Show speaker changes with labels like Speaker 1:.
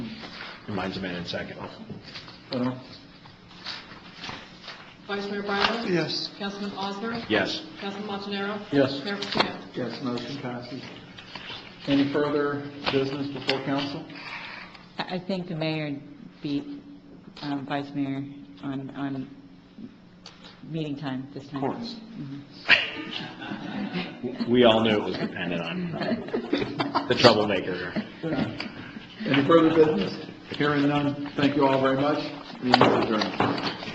Speaker 1: Mine's a minute second.
Speaker 2: Uh,
Speaker 3: Vice Mayor Bryan.
Speaker 2: Yes.
Speaker 3: Councilman Osmer.
Speaker 1: Yes.
Speaker 3: Councilman Montanaro.
Speaker 2: Yes.
Speaker 3: Mayor Patino.
Speaker 2: Yes, motion passes. Any further business before council?
Speaker 4: I I think the mayor beat um, Vice Mayor on, on meeting time this time.
Speaker 1: We all knew it was dependent on the troublemaker.
Speaker 2: Any further business? Hearing none, thank you all very much. Meeting is adjourned.